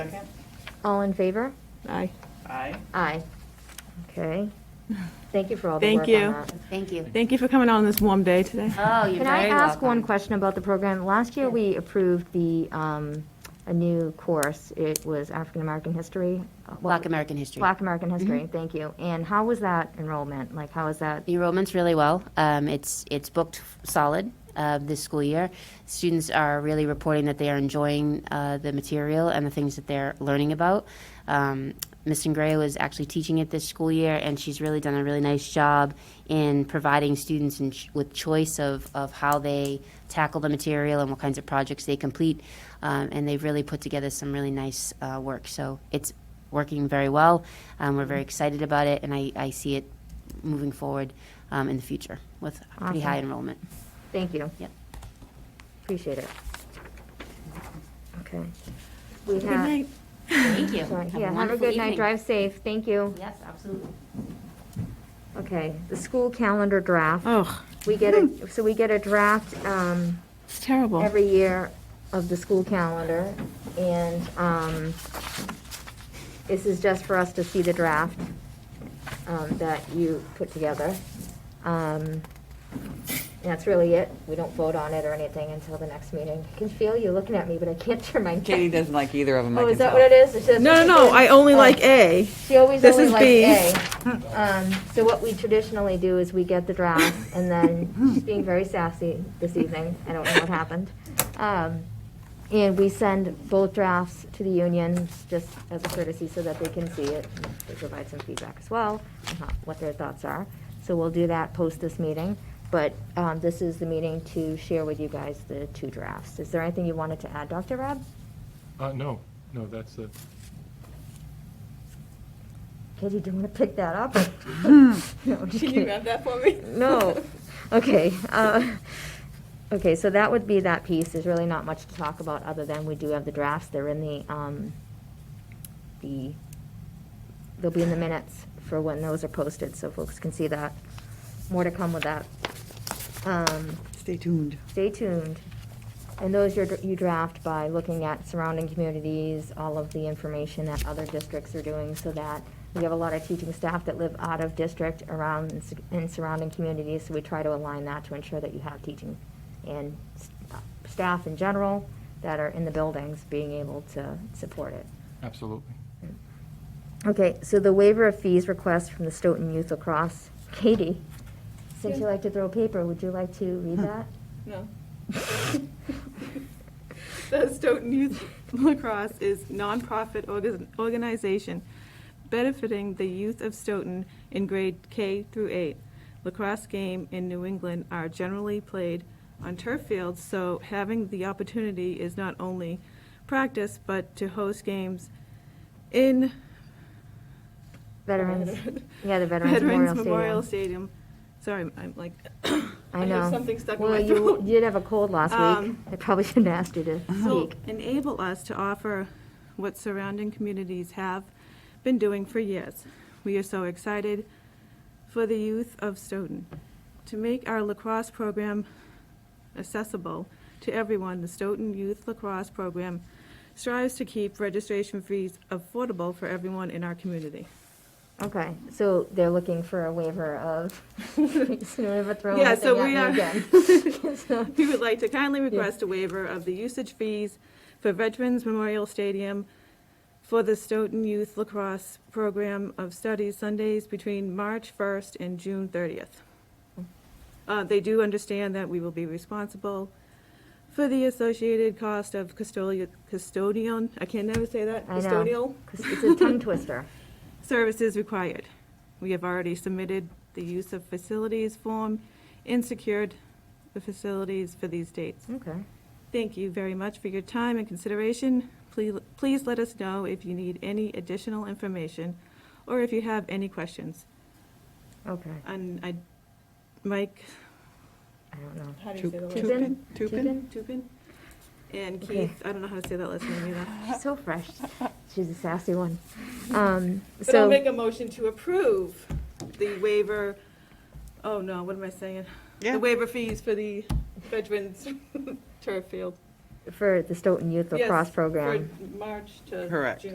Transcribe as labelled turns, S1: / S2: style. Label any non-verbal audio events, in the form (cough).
S1: Second?
S2: All in favor?
S3: Aye.
S1: Aye.
S2: Aye. Okay. Thank you for all the
S3: Thank
S2: work
S3: you.
S2: on that.
S4: Thank you.
S3: Thank you for coming out on this warm day today.
S4: Oh, you're
S2: Can I
S4: very
S2: ask one
S4: welcome.
S2: question about the program? Last year, we approved the, um, a new course. It was African-American history. Uh, what-
S4: Black American history.
S2: Black American
S4: Mm-hmm.
S2: history, thank you. And how was that enrollment? Like, how is that?
S4: The enrollment's really well. Um, it's it's booked solid uh, this school year. Students are really reporting that they are enjoying uh, the material and the things that they're learning about. Um, Miss Gray was actually teaching it this school year, and she's really done a really nice job in providing students in ch- with choice of, of how they tackle the material and what kinds of projects they complete. Um, and they've really put together some really nice uh, work. So it's working very well. Um, we're very excited about it, and I, I see it moving forward um, in the future with pretty high
S2: Awesome.
S4: enrollment.
S2: Thank you.
S4: Yep.
S2: Appreciate it. Okay. We
S3: Good
S2: have,
S3: night.
S4: Thank you.
S2: sorry, yeah, have a good night, drive safe, thank you.
S4: Yes, absolutely.
S2: Okay, the school calendar draft.
S3: Oh,
S2: We get a, so we get a draft, um,
S3: it's terrible.
S2: every year of the school calendar, and um, this is just for us to see the draft um, that you put together. Um, That's really it. We don't vote on it or anything until the next meeting. I can feel you looking at me, but I can't turn my.
S5: Katie doesn't like either of them.
S2: Oh, is that what it is? It's just-
S3: No, no, no, I only like A.
S2: She always
S3: This
S2: only
S3: is
S2: likes
S3: B.
S2: A. Um, So what we traditionally do is we get the draft, and then, she's being very sassy this evening, I don't know what happened. Um, And we send both drafts to the union, just as a courtesy, so that they can see it, and they provide some feedback as well, on how- what their thoughts are. So we'll do that post this meeting, but um, this is the meeting to share with you guys the two drafts. Is there anything you wanted to add, Dr. Rab?
S6: Uh, no, no, that's it.
S2: Katie, do you want to pick that up? (laughs) No, I'm just kidding.
S3: that for me?
S2: No. Okay. uh, Okay, so that would be that piece. There's really not much to talk about, other than we do have the drafts. They're in the, um, the, they'll be in the minutes for when those are posted, so folks can see that. More to come with that. Um,
S5: Stay tuned.
S2: Stay tuned. And those you're- you draft by looking at surrounding communities, all of the information that other districts are doing, so that we have a lot of teaching staff that live out of district around and s- in surrounding communities, so we try to align that to ensure that you have teaching and s- uh, staff in general that are in the buildings being able to support it.
S6: Absolutely.
S2: Okay, so the waiver of fees request from the Stoughton Youth Lacrosse. Katie, since you like to throw paper, would you like to read that?
S3: (laughs) No. The Stoughton Youth Lacrosse is nonprofit orga- organization benefiting the youth of Stoughton in grade K through 8. Lacrosse game in New England are generally played on turf fields, so having the opportunity is not only practice, but to host games in
S2: Veterans, yeah, the Veterans Memorial
S3: Veterans
S2: Stadium.
S3: Memorial Stadium. Sorry, I'm like,
S2: I
S3: I
S2: know.
S3: have something stuck in
S2: well,
S3: my
S2: you (laughs)
S3: throat.
S2: did have a cold last week.
S3: Um,
S2: I probably (laughs) shouldn't have asked Oh, you to
S3: will
S2: speak.
S3: enable us to offer what surrounding communities have been doing for years. We are so excited for the youth of Stoughton. To make our lacrosse program accessible to everyone, the Stoughton Youth Lacrosse Program strives to keep registration fees affordable for everyone in our community.
S2: (laughs) Okay, so they're looking for a waiver of. (laughs) so never throw
S3: Yeah,
S2: anything
S3: so
S2: at
S3: we
S2: me
S3: are- (laughs)
S2: again. So-
S3: We would like to kindly request a waiver of the usage fees for Veterans Memorial Stadium for the Stoughton Youth Lacrosse Program of Studies Sundays between March 1st and June 30th. Uh, They do understand that we will be responsible for the associated cost of custodia- custodian, I can never say that,
S2: I know.
S3: custodial
S2: 'Cause it's a tongue twister.
S3: services required. We have already submitted the use of facilities form and secured the facilities for these dates.
S2: Okay.
S3: Thank you very much for your time and consideration. Please, please let us know if you need any additional information or if you have any questions.
S2: Okay.
S3: And I, Mike.
S2: I don't know.
S3: How
S5: do you say the
S2: Tupin?
S3: Tupin? Tupin? And
S2: Okay.
S3: Keith, I don't know how to say that last name either.
S2: She's so fresh.
S3: (laughs)
S2: She's a sassy one. Um,
S3: But I'll
S2: so
S3: make a motion to approve the waiver, oh no, what am I saying? The waiver fees for the veterans (laughs) turf field.
S7: for the Stoughton Youth
S2: Yes,
S7: Lacrosse Program.
S2: For March to
S3: Correct.
S2: June.